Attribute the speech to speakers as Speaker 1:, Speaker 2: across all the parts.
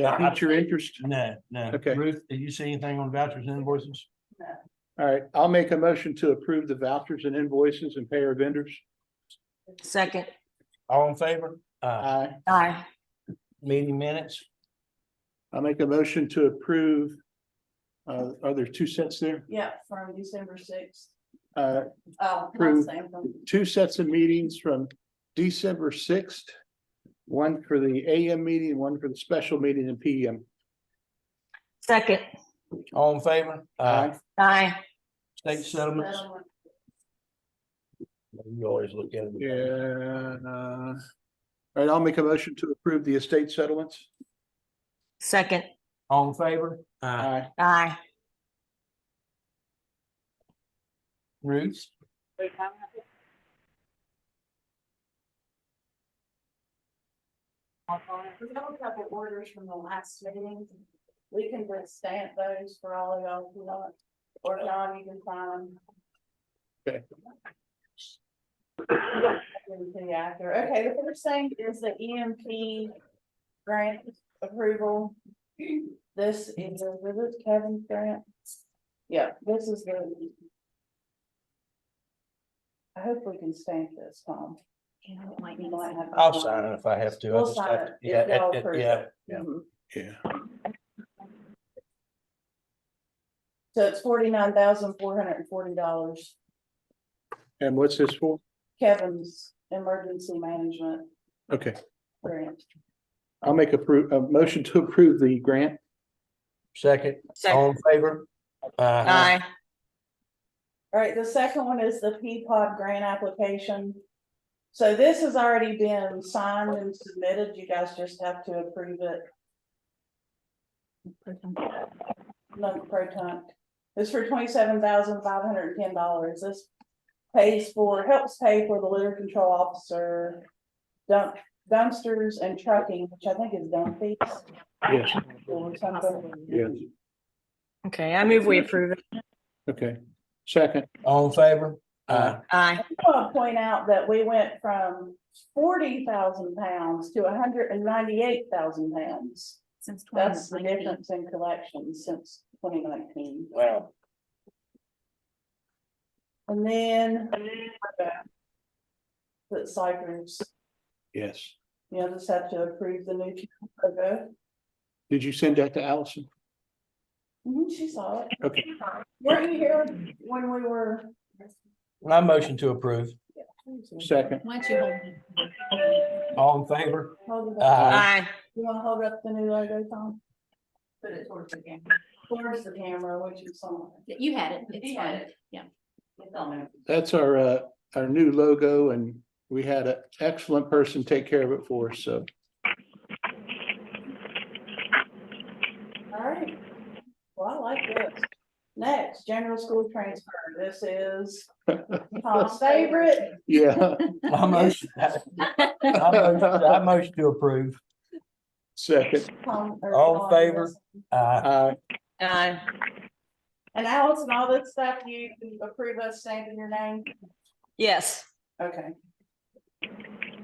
Speaker 1: uh,
Speaker 2: Pique
Speaker 1: I-
Speaker 2: your interest?
Speaker 1: No, no.
Speaker 2: Okay.
Speaker 1: Ruth, did you see anything on vouchers and invoices?
Speaker 2: All right, I'll make a motion to approve the vouchers and invoices and pay our vendors.
Speaker 3: Second,
Speaker 1: All in favor? Uh,
Speaker 2: Aye.
Speaker 3: aye,
Speaker 1: meeting minutes?
Speaker 2: I'll make a motion to approve. Uh, are there two sets there?
Speaker 4: Yeah, from December sixth.
Speaker 2: Uh,
Speaker 4: Oh,
Speaker 2: True.
Speaker 4: not same from
Speaker 2: two sets of meetings from December sixth. One for the AM meeting, one for the special meeting in PM.
Speaker 3: second,
Speaker 1: All in favor? Uh,
Speaker 2: Aye.
Speaker 3: aye,
Speaker 1: state settlements?
Speaker 4: settlement.
Speaker 1: You always look at it.
Speaker 2: Yeah. uh, All right, I'll make a motion to approve the estate settlements.
Speaker 3: second,
Speaker 1: All in favor? Uh,
Speaker 2: Aye.
Speaker 3: aye.
Speaker 1: Ruth?
Speaker 4: We have a couple orders from the last meeting. We can just stamp those for all of y'all who want, or John, you can sign.
Speaker 2: Okay.
Speaker 4: Everything after. Okay, the first thing is the EMP grant approval. This is, was it Kevin's grant? Yeah, this is the. I hope we can stamp this, Tom. You might have-
Speaker 1: I'll sign it if I have to. I
Speaker 4: We'll
Speaker 1: just
Speaker 4: sign
Speaker 1: have
Speaker 4: it
Speaker 1: to-
Speaker 4: if
Speaker 1: Yeah,
Speaker 4: y'all
Speaker 1: it- it-
Speaker 4: approve
Speaker 1: yeah.
Speaker 4: it.
Speaker 1: yeah.
Speaker 4: Mhm.
Speaker 2: Yeah.
Speaker 4: So it's forty-nine thousand four hundred and forty dollars,
Speaker 2: And what's this for?
Speaker 4: Kevin's emergency management
Speaker 2: Okay,
Speaker 4: grant.
Speaker 2: I'll make a pro- a motion to approve the grant.
Speaker 1: Second, all
Speaker 3: Second,
Speaker 1: in favor? Uh,
Speaker 3: aye,
Speaker 4: All right, the second one is the P pod grant application. So this has already been signed and submitted, you guys just have to approve it. No, pro tunc. It's for twenty-seven thousand five hundred and ten dollars. This pays for, helps pay for the litter control officer dump dumpsters and trucking, which I think is dump fees
Speaker 2: Yes.
Speaker 4: or something.
Speaker 2: Yes.
Speaker 3: okay, I move we approve it,
Speaker 2: Okay, second.
Speaker 1: all in favor? Uh,
Speaker 3: aye,
Speaker 4: I want to point out that we went from forty thousand pounds to hundred and ninety-eight thousand pounds.
Speaker 5: Since twenty
Speaker 4: That's the
Speaker 5: nineteen.
Speaker 4: difference in collections since twenty nineteen.
Speaker 1: wow.
Speaker 4: And then. The ciphers,
Speaker 2: Yes.
Speaker 4: you just have to approve the new logo.
Speaker 2: Did you send that to Allison?
Speaker 4: Mhm, She saw it.
Speaker 2: Okay.
Speaker 4: Were you here when we were?
Speaker 1: My motion to approve.
Speaker 2: Second.
Speaker 5: Why don't you hold it?
Speaker 1: All in favor?
Speaker 4: Hold it
Speaker 1: Uh,
Speaker 4: up.
Speaker 3: aye,
Speaker 4: You wanna hold up the new logo, Tom?
Speaker 5: Put it towards the camera.
Speaker 4: Towards the camera, which is on.
Speaker 5: You had it. It's
Speaker 4: You had
Speaker 5: fine.
Speaker 2: That's our, uh, our new logo and we had an excellent person take care of it for us, so.
Speaker 4: All right. Well, I like this. Next, general school transfer. This is Tom's favorite.
Speaker 2: Yeah,
Speaker 1: Uh, My motion, I motion- I motion to approve.
Speaker 2: second.
Speaker 4: Tom- or
Speaker 1: All in
Speaker 4: Tom,
Speaker 1: favor?
Speaker 4: yes.
Speaker 1: Uh,
Speaker 2: Uh,
Speaker 3: aye,
Speaker 4: And Allison, all that stuff, you approve us saying your name?
Speaker 3: yes,
Speaker 4: Okay.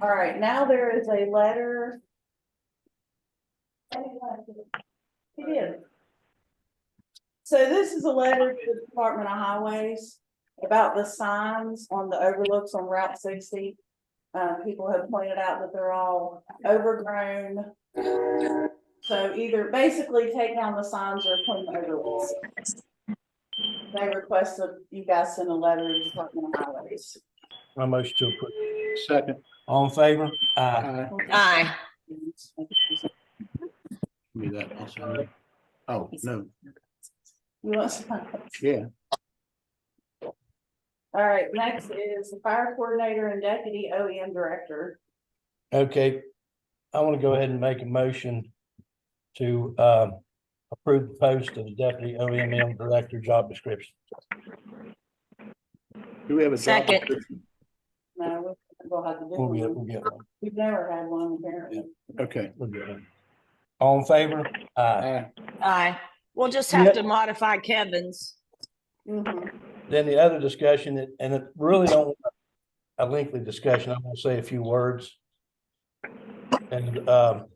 Speaker 4: All right, now there is a letter. He did. So this is a letter to the Department of Highways about the signs on the overlooks on Route sixty. Uh, people have pointed out that they're all overgrown. So either basically take down the signs or put them overlooks. They requested you guys send a letter to the Department of Highways.
Speaker 1: my motion to approve.
Speaker 2: second.
Speaker 1: All in favor? Uh,
Speaker 2: Uh,
Speaker 3: aye,
Speaker 4: You
Speaker 2: give me that also. Oh, no,
Speaker 4: want some?
Speaker 2: yeah,
Speaker 4: All right, next is the fire coordinator and deputy OEM director.
Speaker 1: okay. I want to go ahead and make a motion to, um, approve the post of the deputy OMM director job description.
Speaker 2: do we have a? job
Speaker 3: Second.
Speaker 2: description?
Speaker 4: No, we'll have to do
Speaker 1: We'll get,
Speaker 4: one.
Speaker 1: we'll get one.
Speaker 4: We've never had one apparently.
Speaker 2: Okay.
Speaker 1: We'll get one. All in favor? Uh,
Speaker 2: Uh,
Speaker 3: aye. We'll just
Speaker 1: Yeah.
Speaker 3: have to modify Kevin's,
Speaker 4: Mhm.
Speaker 1: then the other discussion, and it really don't a lengthy discussion. I'm gonna say a few words. And, um,